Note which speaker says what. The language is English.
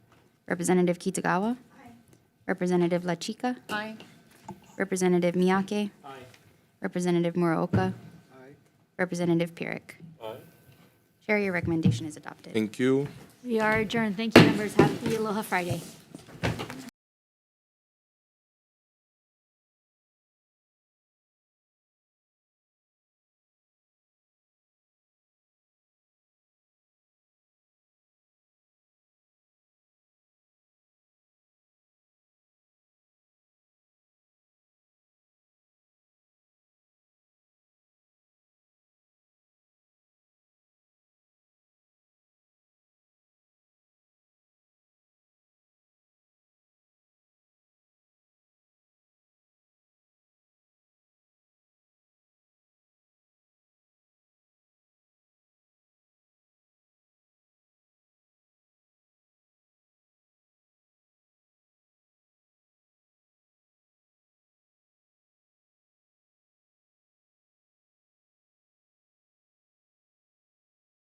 Speaker 1: Representative Kitagawa. Representative Lachika.
Speaker 2: Aye.
Speaker 1: Representative Miyake.
Speaker 3: Aye.
Speaker 1: Representative Muraoka.
Speaker 3: Aye.
Speaker 1: Representative Pyrick.
Speaker 3: Aye.
Speaker 1: Chair, your recommendation is adopted.
Speaker 4: Thank you.
Speaker 5: We are adjourned. Thank you, members. Happy Aloha Friday.